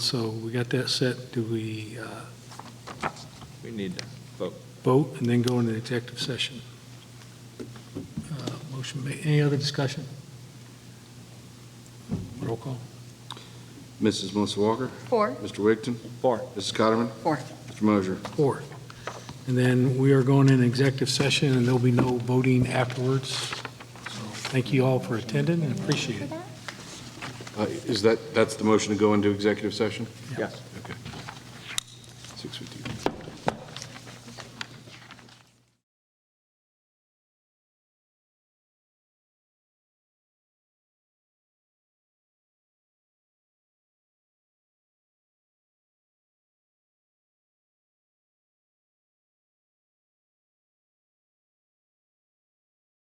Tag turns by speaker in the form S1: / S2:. S1: So we got that set. Do we uh,
S2: We need to vote.
S1: vote and then go into executive session? Uh, Motion made. Any other discussion? Roll call.
S3: Mrs. Melissa Walker,
S4: Four.
S3: Mr. Wigton,
S2: Four.
S3: Mrs. Cotterman,
S4: Four.
S3: Mr. Mosher.
S1: Four. And then we are going in executive session, and there'll be no voting afterwards. So Thank you all for attending and appreciate it.
S3: Uh, Is that, that's the motion to go into executive session?
S2: Yes.
S3: Okay.